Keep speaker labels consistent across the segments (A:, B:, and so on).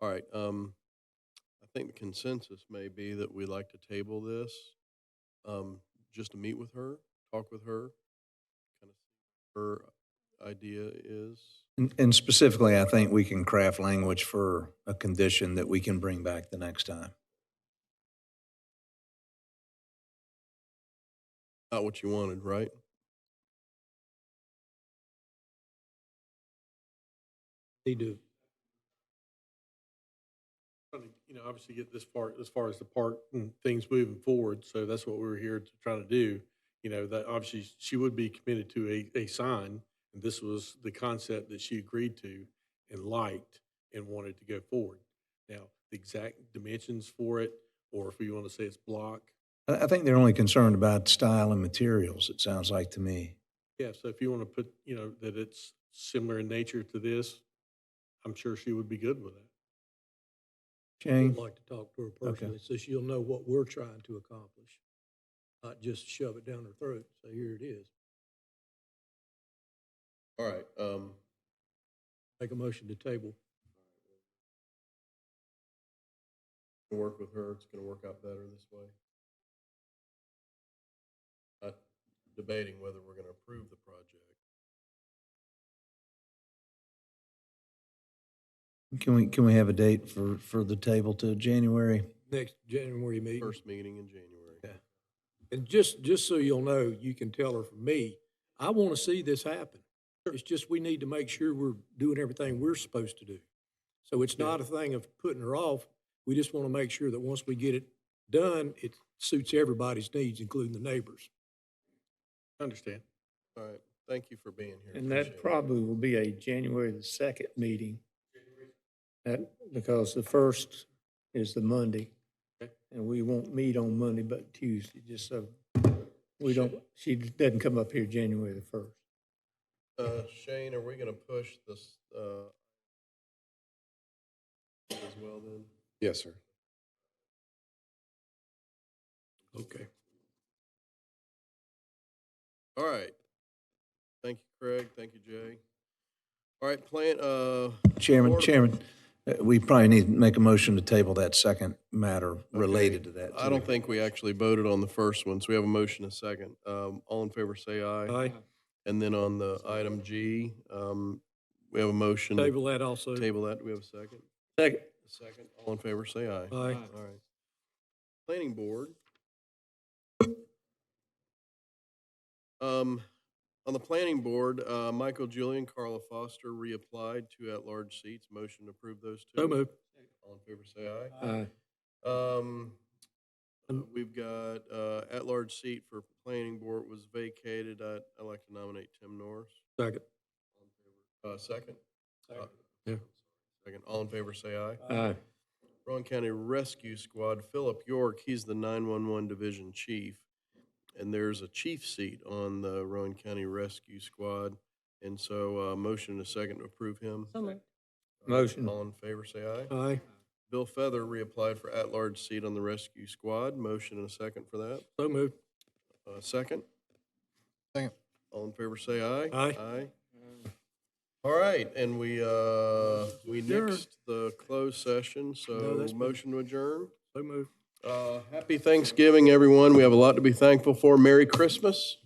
A: All right, um, I think the consensus may be that we'd like to table this, um, just to meet with her, talk with her, kind of see what her idea is.
B: And- And specifically, I think we can craft language for a condition that we can bring back the next time.
A: Not what you wanted, right?
C: They do.
D: trying to, you know, obviously get this far, as far as the park and things moving forward, so that's what we were here to try to do. You know, that obviously she would be committed to a, a sign, and this was the concept that she agreed to and liked and wanted to go forward. Now, the exact dimensions for it, or if we want to say it's block,
B: I, I think they're only concerned about style and materials, it sounds like to me.
D: yeah, so if you want to put, you know, that it's similar in nature to this, I'm sure she would be good with that.
B: Shane?
C: I'd like to talk to her personally, so she'll know what we're trying to accomplish, not just shove it down her throat, say, here it is.
A: All right, um,
C: Make a motion to table.
A: we'll work with her, it's gonna work out better this way. Not debating whether we're gonna approve the project.
B: Can we, can we have a date for, for the table to January?
C: Next January meeting.
A: First meeting in January.
C: Yeah. And just, just so you'll know, you can tell her from me, I want to see this happen. It's just, we need to make sure we're doing everything we're supposed to do. So it's not a thing of putting her off. We just want to make sure that once we get it done, it suits everybody's needs, including the neighbors.
D: Understand?
A: All right, thank you for being here.
E: And
A: Appreciate
E: that
A: it.
E: probably will be a January the second meeting. That, because the first is the Monday.
D: Okay.
E: And we won't meet on Monday, but Tuesday, just so we don't, she doesn't come up here January the first.
A: Uh, Shane, are we gonna push this, uh, as well then?
F: Yes, sir.
C: Okay.
A: All right. Thank you, Craig. Thank you, Jay. All right, plan, uh,
B: Chairman,
A: Or-
B: Chairman, uh, we probably need to make a motion to table that second matter related to that.
A: I don't think we actually voted on the first one, so we have a motion, a second. Um, all in favor, say aye.
C: Aye.
A: And then on the item G, um, we have a motion. to
C: Table that also.
A: Table that. Do we have a second?
E: Second.
A: A second. All in favor, say aye.
C: Aye.
A: All right. Planning Board. Um, on the Planning Board, uh, Michael Julian, Carla Foster reapplied, two at-large seats. Motion to approve those two.
C: So moved.
A: All in favor, say aye.
E: Aye.
A: Um, uh, we've got, uh, at-large seat for Planning Board was vacated. I, I'd like to nominate Tim Norris.
C: Second.
A: Uh, second?
C: Second.
A: Uh,
C: Yeah.
A: Second. All in favor, say aye.
E: Aye.
A: Rowan County Rescue Squad, Philip York, he's the 911 Division Chief. And there's a chief seat on the Rowan County Rescue Squad. And so, uh, motion and a second to approve him. Uh,
E: Motion.
A: All in favor, say aye.
C: Aye.
A: Bill Feather reapplied for at-large seat on the Rescue Squad. Motion and a second for that.
C: So moved.
A: Uh, second?
F: Second.
A: All in favor, say aye.
C: Aye.
A: Aye. All right, and we, uh, we
C: Adjourn.
A: nixed the closed session, so
C: that's been-
A: motion to adjourn.
C: So moved.
A: Uh, happy Thanksgiving, everyone. We have a lot to be thankful for. Merry Christmas.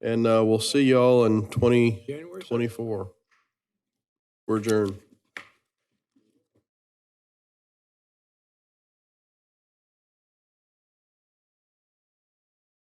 A: And, uh, we'll see y'all in twenty
C: January. second.
A: twenty-four. We're adjourned.